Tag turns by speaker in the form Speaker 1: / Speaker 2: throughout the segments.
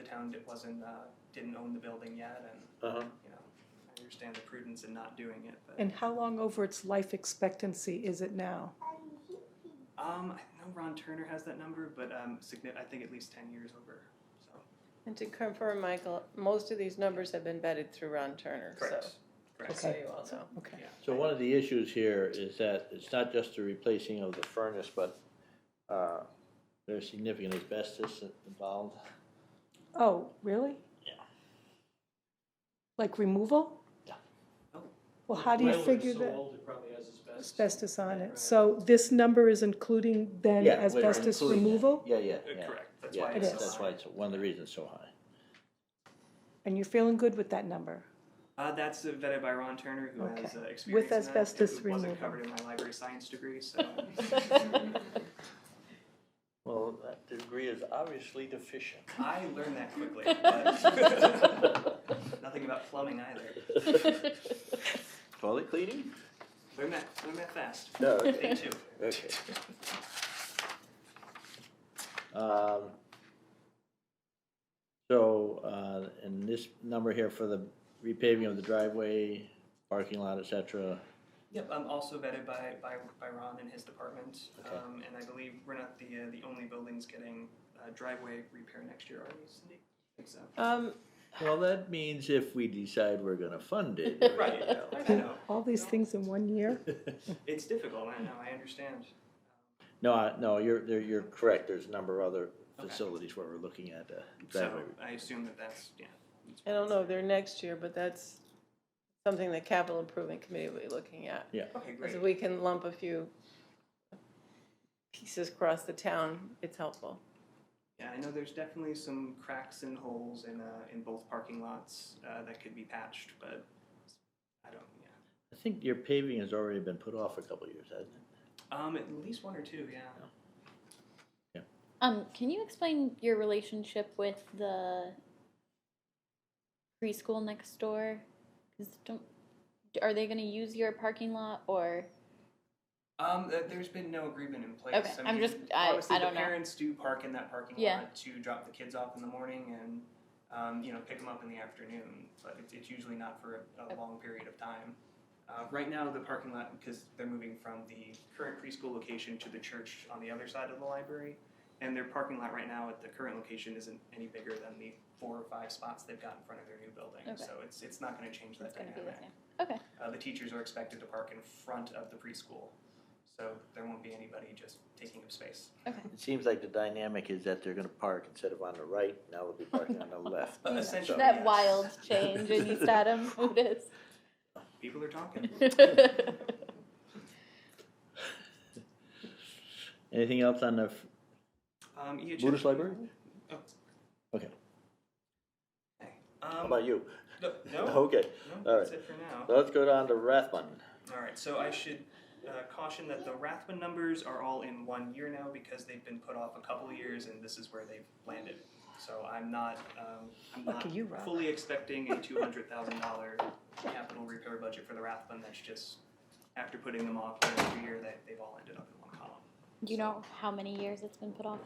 Speaker 1: town that wasn't, uh, didn't own the building yet, and,
Speaker 2: Uh-huh.
Speaker 1: you know, I understand the prudence in not doing it, but,
Speaker 3: And how long over its life expectancy is it now?
Speaker 1: um, I know Ron Turner has that number, but, um, signi- I think at least ten years over, so.
Speaker 4: And to confirm, Michael, most of these numbers have been vetted through Ron Turner, so.
Speaker 1: Correct.
Speaker 4: So
Speaker 3: Okay.
Speaker 4: you all know.
Speaker 3: Okay.
Speaker 1: Yeah.
Speaker 2: So one of the issues here is that it's not just the replacing of the furnace, but uh, there's significant asbestos involved.
Speaker 3: Oh, really?
Speaker 2: Yeah.
Speaker 3: Like removal?
Speaker 2: Yeah.
Speaker 1: Oh.
Speaker 3: Well, how do you
Speaker 5: Railroad's
Speaker 3: figure
Speaker 5: so
Speaker 3: that
Speaker 5: old, it probably has asbestos.
Speaker 3: asbestos on
Speaker 1: Right.
Speaker 3: it? So this number is including then
Speaker 2: Yeah, we're
Speaker 3: asbestos
Speaker 2: including that.
Speaker 3: removal?
Speaker 2: Yeah, yeah,
Speaker 1: Uh,
Speaker 2: yeah.
Speaker 1: Correct, that's
Speaker 2: Yeah,
Speaker 1: why
Speaker 3: It
Speaker 1: it's so
Speaker 3: is.
Speaker 2: that's
Speaker 1: high.
Speaker 2: why it's, one of the reasons it's so high.
Speaker 3: And you're feeling good with that number?
Speaker 1: Uh, that's vetted by Ron Turner, who
Speaker 3: Okay.
Speaker 1: has uh, experience in that.
Speaker 3: asbestos
Speaker 1: It wasn't
Speaker 3: removal.
Speaker 1: covered in my library science degree, so.
Speaker 2: Well, that degree is obviously deficient.
Speaker 1: I learned that quickly, but nothing about plumbing either.
Speaker 2: Toilet cleaning?
Speaker 1: Learn that, learn that fast.
Speaker 2: No.
Speaker 1: Day two.
Speaker 2: Okay. Um, So, uh, and this number here for the repaving of the driveway, parking lot, et cetera,
Speaker 1: Yep, I'm also vetted by, by, by Ron and his department.
Speaker 2: Okay.
Speaker 1: Um, and I believe we're not the, uh, the only buildings getting uh, driveway repair next year, are we, Cindy? I think so.
Speaker 4: Um,
Speaker 2: Well, that means if we decide we're gonna fund it.
Speaker 1: Right.
Speaker 2: you know.
Speaker 1: I know,
Speaker 3: All these things in one year?
Speaker 1: it's difficult, I know, I understand.
Speaker 2: No, I- no, you're, there- you're correct, there's a number of other
Speaker 1: Okay.
Speaker 2: facilities where we're looking at uh,
Speaker 1: So
Speaker 2: driveway.
Speaker 1: I assume that that's, yeah. that's-
Speaker 4: I don't know, if they're next year, but that's something the capital improvement committee will be looking at.
Speaker 1: Okay, great.
Speaker 4: Because we can lump a few pieces across the town, it's helpful.
Speaker 1: Yeah, I know there's definitely some cracks and holes in, uh, in both parking lots, uh, that could be patched, but I don't, yeah.
Speaker 2: I think your paving has already been put off a couple of years, hasn't it?
Speaker 1: Um, at least one or two, yeah.
Speaker 6: Um, can you explain your relationship with the preschool next door? 'Cause don't are they going to use your parking lot or
Speaker 1: Um, th- there's been no agreement in place.
Speaker 6: Okay,
Speaker 1: I
Speaker 6: I'm
Speaker 1: mean,
Speaker 6: just- I-
Speaker 1: honestly,
Speaker 6: I don't
Speaker 1: the
Speaker 6: know.
Speaker 1: parents do park in that parking
Speaker 6: Yeah.
Speaker 1: lot to drop the kids off in the morning and, um, you know, pick them up in the afternoon. But it's, it's usually not for a, a long period of time. Uh, right now, the parking lot because they're moving from the current preschool location to the church on the other side of the library, and their parking lot right now at the current location isn't any bigger than the four or five spots they've got in front of their new building.
Speaker 6: Okay.
Speaker 1: So it's it's not going to change that
Speaker 6: it's going to
Speaker 1: dynamic.
Speaker 6: be the same?
Speaker 1: Uh, the teachers are expected to park in front of the preschool, so there won't be anybody just taking up space.
Speaker 2: It seems like the dynamic is that they're gonna park instead of on the right, now they'll be parking on the left.
Speaker 1: Uh, essentially,
Speaker 6: That
Speaker 1: yes.
Speaker 6: wild change in East Adam Otis.
Speaker 1: People are talking.
Speaker 2: Anything else on the f-
Speaker 1: Um, EHS
Speaker 2: Buddhist library?
Speaker 1: Oh.
Speaker 2: Okay,
Speaker 1: Okay.
Speaker 2: how
Speaker 1: Um,
Speaker 2: about you?
Speaker 1: no, no,
Speaker 2: Okay,
Speaker 1: no,
Speaker 2: all
Speaker 1: that's
Speaker 2: right.
Speaker 1: it for now.
Speaker 2: so let's go down to Rathbun.
Speaker 1: All right, so I should uh, caution that the Rathbun numbers are all in one year now because they've been put off a couple of years, and this is where they've landed. So I'm not, um, I'm
Speaker 3: Look
Speaker 1: not
Speaker 3: at you, Rob.
Speaker 1: fully expecting a two hundred thousand dollar capital repair budget for the Rathbun. That's just after putting them off year after year, that they've all ended up in one column.
Speaker 6: Do you know how many years it's been put off?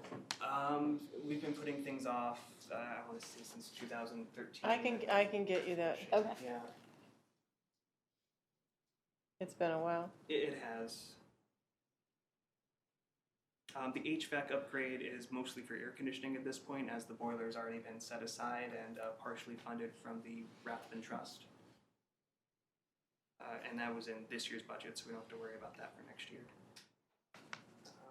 Speaker 1: Um, we've been putting things off. Uh, I want to say since 2013.
Speaker 4: I can, I can get you that,
Speaker 6: Okay.
Speaker 1: Yeah,
Speaker 4: it's been a while.
Speaker 1: it, it has. Um, the HVAC upgrade is mostly for air conditioning at this point, as the boiler's already been set aside and uh, partially funded from the Rathbun Trust. Uh, and that was in this year's budget, so we don't have to worry about that for next year.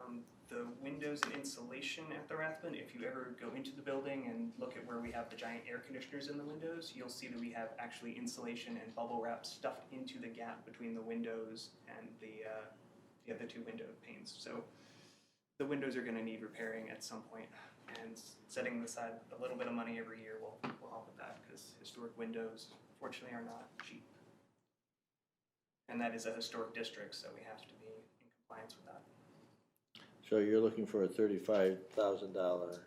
Speaker 1: Um, the windows and insulation at the Rathbun, if you ever go into the building and look at where we have the giant air conditioners in the windows, you'll see that we have actually insulation and bubble wrap stuffed into the gap between the windows and the, uh, the other two window panes. So the windows are going to need repairing at some point, and s- setting aside a little bit of money every year will, will help with that because historic windows, fortunately, are not cheap. And that is a historic district, so we have to be in compliance with that.
Speaker 2: So you're looking for a thirty-five thousand dollar.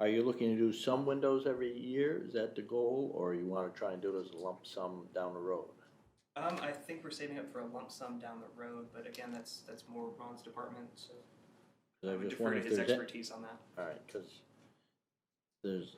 Speaker 2: Are you looking to do some windows every year? Is that the goal, or you wanna try and do it as a lump sum down the road?
Speaker 1: Um, I think we're saving up for a lump sum down the road, but again, that's that's more Ron's department, so
Speaker 2: 'Cause
Speaker 1: I
Speaker 2: I'm
Speaker 1: would
Speaker 2: just
Speaker 1: defer to
Speaker 2: wondering if
Speaker 1: his
Speaker 2: there's a-
Speaker 1: expertise on that.
Speaker 2: All right, because there's